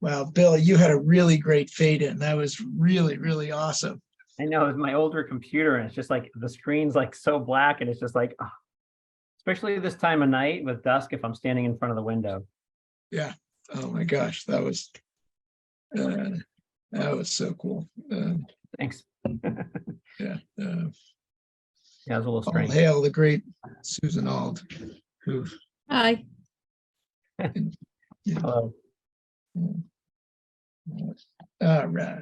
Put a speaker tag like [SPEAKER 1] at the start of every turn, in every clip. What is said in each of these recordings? [SPEAKER 1] Wow, Bill, you had a really great fade in. That was really, really awesome.
[SPEAKER 2] I know it's my older computer and it's just like the screen's like so black and it's just like, ah. especially this time of night with dusk if I'm standing in front of the window.
[SPEAKER 1] Oh my gosh, that was uh, that was so cool. Uh,
[SPEAKER 2] Thanks.
[SPEAKER 1] yeah, uh,
[SPEAKER 2] Yeah, it was a little
[SPEAKER 3] Oh,
[SPEAKER 1] all
[SPEAKER 2] strange.
[SPEAKER 1] hail the great Susan Ald, who
[SPEAKER 3] Hi,
[SPEAKER 2] Hello.
[SPEAKER 1] All right.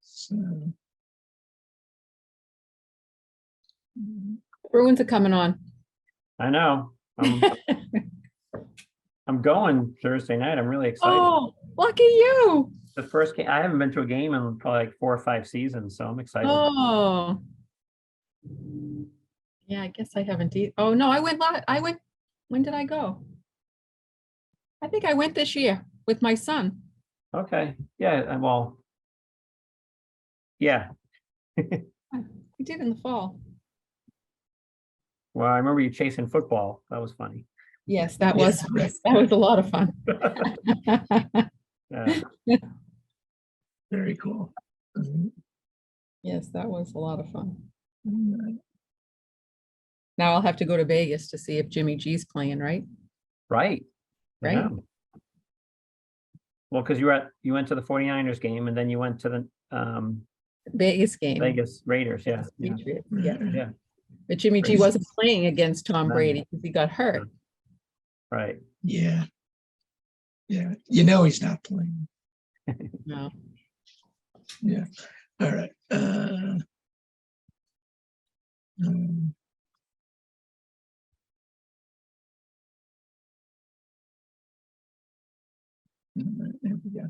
[SPEAKER 1] So. Mm,
[SPEAKER 3] Bruins are coming on.
[SPEAKER 2] I know. I'm I'm going Thursday night. I'm really excited.
[SPEAKER 3] Oh, lucky you.
[SPEAKER 2] The first game, I haven't been to a game in probably like four or five seasons, so I'm excited.
[SPEAKER 3] Oh. Yeah, I guess I haven't. e- Oh, no, I went, la- I went, when did I go? I think I went this year with my son.
[SPEAKER 2] Okay, yeah, I- well. Yeah,
[SPEAKER 3] We did in the fall.
[SPEAKER 2] well, I remember you chasing football. That was funny.
[SPEAKER 3] Yes, that
[SPEAKER 1] Yeah,
[SPEAKER 3] was,
[SPEAKER 1] right.
[SPEAKER 3] that was a lot of fun.
[SPEAKER 2] Uh,
[SPEAKER 1] Very cool. Mm,
[SPEAKER 3] Yes, that was a lot of fun.
[SPEAKER 1] mm,
[SPEAKER 3] Now I'll have to go to Vegas to see if Jimmy G's playing, right?
[SPEAKER 2] Right. I
[SPEAKER 3] Right?
[SPEAKER 2] know. Well, because you were at, you went to the 49ers game and then you went to the um
[SPEAKER 3] Vegas game.
[SPEAKER 2] Vegas Raiders, yeah.
[SPEAKER 3] against
[SPEAKER 2] yeah.
[SPEAKER 3] Patriots, Yeah,
[SPEAKER 1] right.
[SPEAKER 2] Yeah.
[SPEAKER 3] but Jimmy G
[SPEAKER 2] Crazy.
[SPEAKER 3] wasn't playing against Tom
[SPEAKER 2] No.
[SPEAKER 3] Brady because he got hurt.
[SPEAKER 2] Right,
[SPEAKER 1] Yeah. Yeah, you know he's not playing.
[SPEAKER 3] No.
[SPEAKER 1] Yeah, all right. uh, um, all right, there we go.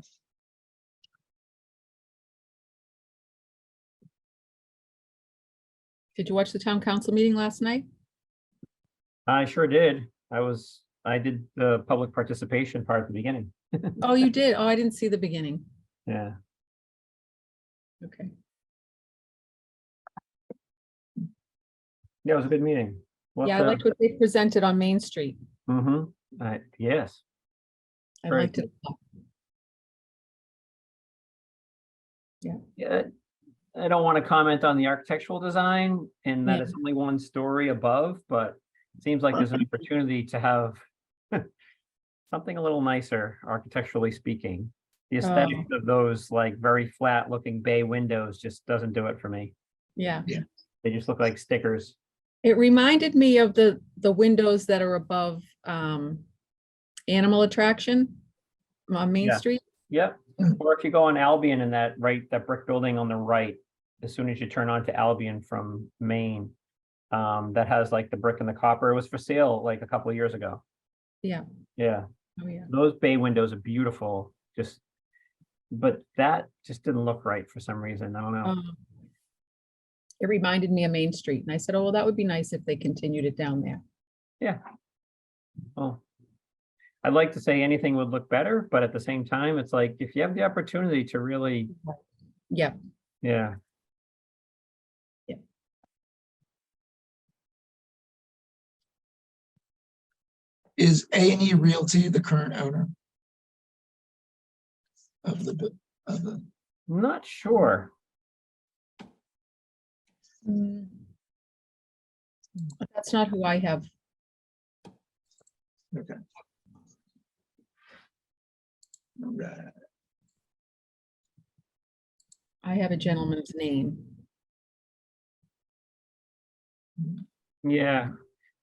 [SPEAKER 3] Did you watch the town council meeting last night?
[SPEAKER 2] I sure did. I was, I did the public participation part at the beginning,
[SPEAKER 3] Oh, you did? Oh, I didn't see the beginning.
[SPEAKER 2] yeah.
[SPEAKER 3] Okay.
[SPEAKER 2] Yeah, it was a good meeting.
[SPEAKER 3] Yeah, I liked what they presented on Main Street.
[SPEAKER 2] Mm-hmm, I, yes,
[SPEAKER 3] I
[SPEAKER 2] Very
[SPEAKER 3] liked it. a lot.
[SPEAKER 2] yeah. I don't want to comment on the architectural design and that
[SPEAKER 3] Yeah.
[SPEAKER 2] it's only one story above, but it seems like there's an opportunity to have something a little nicer architecturally speaking. The aesthetics of those like very flat looking bay windows just doesn't do it for me.
[SPEAKER 3] Yeah,
[SPEAKER 2] They just look like stickers.
[SPEAKER 3] it reminded me of the, the windows that are above um Animal Attraction on Main
[SPEAKER 2] Yeah.
[SPEAKER 3] Street.
[SPEAKER 2] Yep,
[SPEAKER 1] Mm.
[SPEAKER 2] or if you go on Albion and that right, that brick building on the right, as soon as you turn onto Albion from Maine. Um, that has like the brick and the copper, it was for sale like a couple of years ago.
[SPEAKER 3] Yeah,
[SPEAKER 2] Yeah,
[SPEAKER 3] oh yeah,
[SPEAKER 2] those bay windows are beautiful, just. But that just didn't look right for some reason, I don't know.
[SPEAKER 3] Um, It reminded me of Main Street and I said, oh, well, that would be nice if they continued it down there.
[SPEAKER 2] Well, Oh. I'd like to say anything would look better, but at the same time, it's like, if you have the opportunity to really,
[SPEAKER 3] Yeah,
[SPEAKER 2] yeah.
[SPEAKER 3] Yeah.
[SPEAKER 1] Is A and E Realty the current owner? Of the, bu- of the,
[SPEAKER 2] Not sure.
[SPEAKER 3] Mm. But That's not who I have.
[SPEAKER 1] okay. All right,
[SPEAKER 3] I have a gentleman's name.
[SPEAKER 2] Yeah,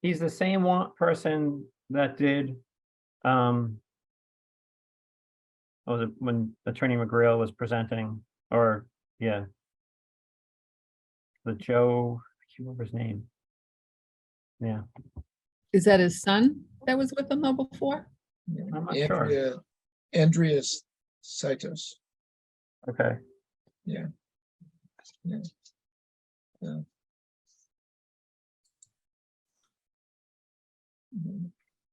[SPEAKER 2] he's the same one person that did, um. what Was it when Attorney McGrail was presenting, or, yeah. The Joe, I can't remember his name. Yeah,
[SPEAKER 3] Is that his son that was with them though before?
[SPEAKER 1] yeah.
[SPEAKER 2] I'm not sure,
[SPEAKER 1] Andrea, Andreas Saitos.
[SPEAKER 2] okay,
[SPEAKER 1] Yeah. Yeah. Mhm.